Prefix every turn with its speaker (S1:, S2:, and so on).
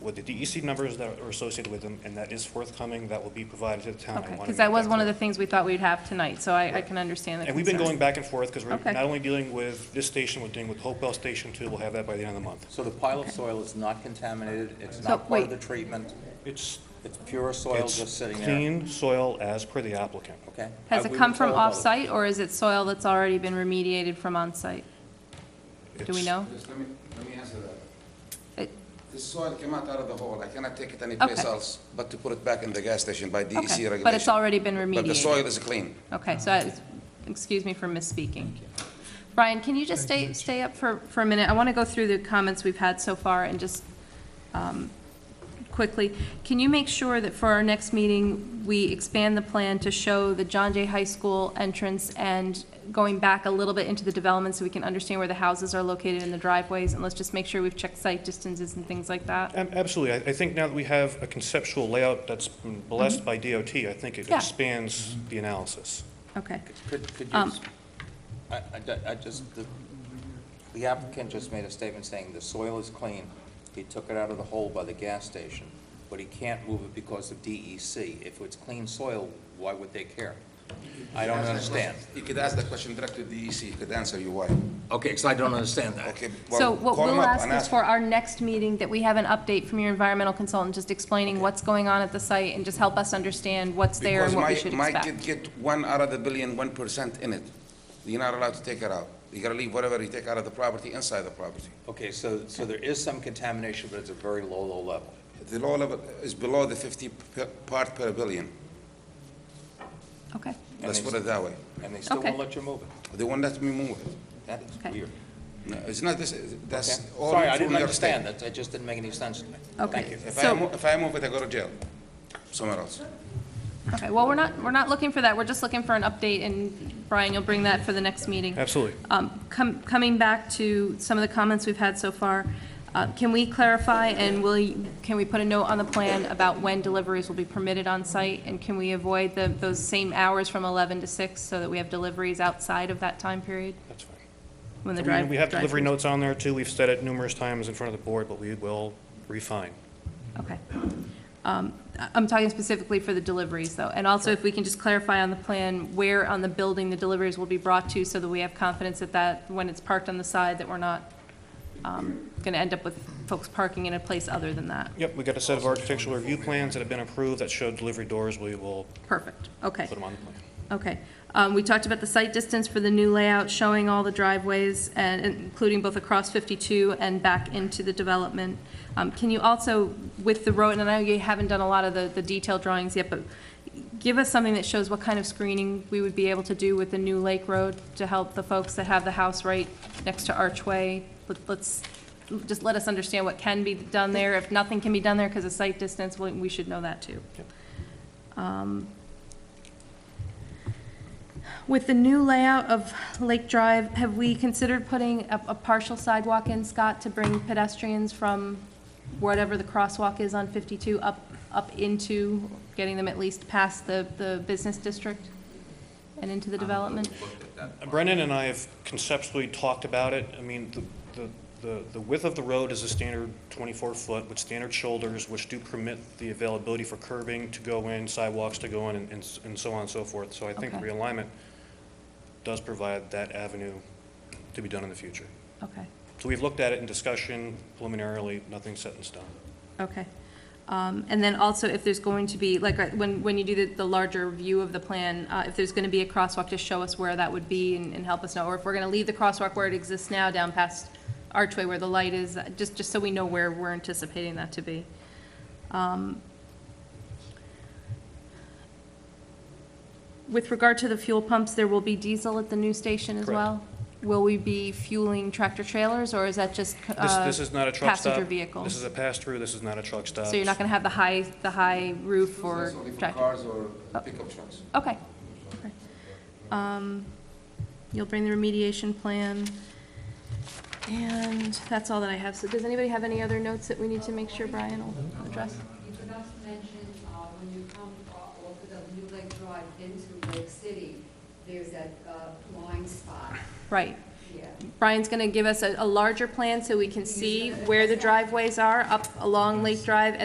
S1: with the DEC numbers that are associated with them, and that is forthcoming, that will be provided to the town. I
S2: Okay,
S1: wanna
S2: because
S1: make
S2: that was one of the
S1: clear.
S2: things we thought we'd have tonight, so I, I can understand the
S1: And
S2: concern.
S1: we've been going back and forth, because we're
S2: Okay.
S1: not only dealing with this station, we're dealing with Hopewell Station too, we'll have that by the end of the month.
S3: So the pile of soil is not contaminated, it's
S2: So,
S3: not part
S2: wait.
S3: of the treatment,
S1: It's,
S3: it's pure soil just
S1: it's
S3: sitting there?
S1: clean soil as per the applicant.
S3: Okay.
S2: Has
S3: I-
S2: it
S3: uh, we
S2: come
S3: were
S2: from
S3: told about it.
S2: off-site, or is it soil that's already been remediated from on-site? Do we
S1: It's-
S2: know?
S4: Just let me, let me answer that.
S2: It-
S4: This soil came out out of the hole, I cannot take it anyplace
S2: Uh, Okay.
S4: else but to put it back in the gas station by DEC
S2: Okay,
S4: regulation.
S2: But it's already been
S4: But the soil
S2: remediated?
S4: is clean.
S2: Okay, so, I- excuse me for misspeaking. Brian, can you just stay, stay up for, for a minute? I want to go through the comments we've had so far and just um, quickly. Can you make sure that for our next meeting, we expand the plan to show the John Jay High School entrance and going back a little bit into the development so we can understand where the houses are located and the driveways? And let's just make sure we've checked site distances and things like that?
S1: Ab- Absolutely. I I think now that we have a conceptual layout that's been blessed by DOT, I think it
S2: Mm-hmm. Yeah.
S1: expands the analysis.
S2: Okay.
S3: Could, could you,
S2: Um,
S3: s- I, I ju- I just, the- the applicant just made a statement saying the soil is clean. He took it out of the hole by the gas station, but he can't move it because of DEC. If it's clean soil, why would they care? I don't
S4: Ask that
S3: understand.
S4: question- You could ask the question direct to DEC, he could answer you why.
S3: Okay, because I don't understand that.
S4: Okay,
S2: So
S4: well,
S2: what
S4: call him
S2: we'll
S4: up
S2: ask
S4: and
S2: is for our next meeting, that we have an update from your environmental consultant, just explaining what's going on at the site, and just help us understand what's there and what we should
S4: Because my, my kid
S2: expect.
S4: get one out of the billion, one percent in it. You're not allowed to take it out. You gotta leave whatever you take out of the property inside the property.
S3: Okay, so, so there is some contamination, but it's a very low, low level.
S4: The law level is below the fifty per- part per billion.
S2: Okay,
S4: Let's put it that way.
S3: And they still
S2: Okay.
S3: won't let you move it.
S4: They won't let me move it.
S3: That is
S2: Okay.
S3: weird.
S4: No, it's not this, that's
S3: Okay.
S4: all.
S3: Sorry, I
S4: from
S3: didn't
S4: New York
S3: understand.
S4: State.
S3: That, that just didn't make any sense to me.
S2: okay.
S4: If I,
S2: So,
S4: mo- if I move it, I go to jail, somewhere else.
S2: okay, well, we're not, we're not looking for that, we're just looking for an update, and Brian, you'll bring that for the next meeting.
S1: Absolutely.
S2: Um, com- Coming back to some of the comments we've had so far, uh, can we clarify, and will, you- can we put a note on the plan about when deliveries will be permitted on site? And can we avoid the, those same hours from 11 to 6, so that we have deliveries outside of that time period?
S1: That's fine.
S2: When the
S1: We-
S2: drive.
S1: We have delivery
S2: drive-throughs-
S1: notes on there too. We've said it numerous times in front of the board, but we will refine.
S2: Okay. Um, I- I'm talking specifically for the deliveries, though. And also, if we can just clarify on the plan where on the building the deliveries will be brought to, so that we have confidence that that, when it's parked on the side, that we're not going to end up with folks parking in a place other than that.
S1: Yep, we got a set of architectural review plans that have been approved that show delivery doors. We will
S2: Perfect. Okay.
S1: put them on the plan.
S2: Okay. Um, We talked about the site distance for the new layout, showing all the driveways, and including both across 52 and back into the development. Um, Can you also, with the road, and I know you haven't done a lot of the the detailed drawings yet, but give us something that shows what kind of screening we would be able to do with the new Lake Road to help the folks that have the house right next to Archway. Let- Let's, just let us understand what can be done there. If nothing can be done there because of site distance, we we should know that, too. With the new layout of Lake Drive, have we considered putting a, a partial sidewalk in, Scott, to bring pedestrians from whatever the crosswalk is on 52 up, up into, getting them at least past the, the business district and into the development?
S1: Brennan and I have conceptually talked about it. I mean, the- the, the, the width of the road is a standard twenty-four foot with standard shoulders, which do permit the availability for curbing to go in, sidewalks to go in, and- and, s- and so on and so forth. So I think
S2: Okay.
S1: realignment does provide that avenue to be done in the future.
S2: Okay,
S1: So we've looked at it in discussion preliminarily, nothing's set in stone.
S2: okay. Um, and then also if there's going to be, like, uh, when, when you do the, the larger view of the plan, uh, if there's gonna be a crosswalk, just show us where that would be and, and help us know. Or if we're gonna leave the crosswalk where it exists now, down past Archway where the light is, uh, just, just so we know where we're anticipating that to be. Um, With regard to the fuel pumps, there will be diesel at the new station as
S1: Correct.
S2: well? Will we be fueling tractor trailers, or is that just,
S1: This,
S2: uh,
S1: this is not a truck stop.
S2: Passenger vehicle?
S1: This is a pass-through, this is not a truck stop.
S2: So you're not gonna have the high, the high roof or
S4: That's only for
S2: tractor? Oh.
S4: Cars or pickup trucks.
S2: Okay. Okay. Um, You'll bring the remediation plan, and that's all that I have. So does anybody have any other notes that we need to make sure Brian will address?
S5: You could also mention, uh, when you come off off of New Lake Drive into Lake City, there's that uh, blind spot.
S2: Right. Brian's gonna give us a, a larger plan so we can see where the driveways are up along Lake Drive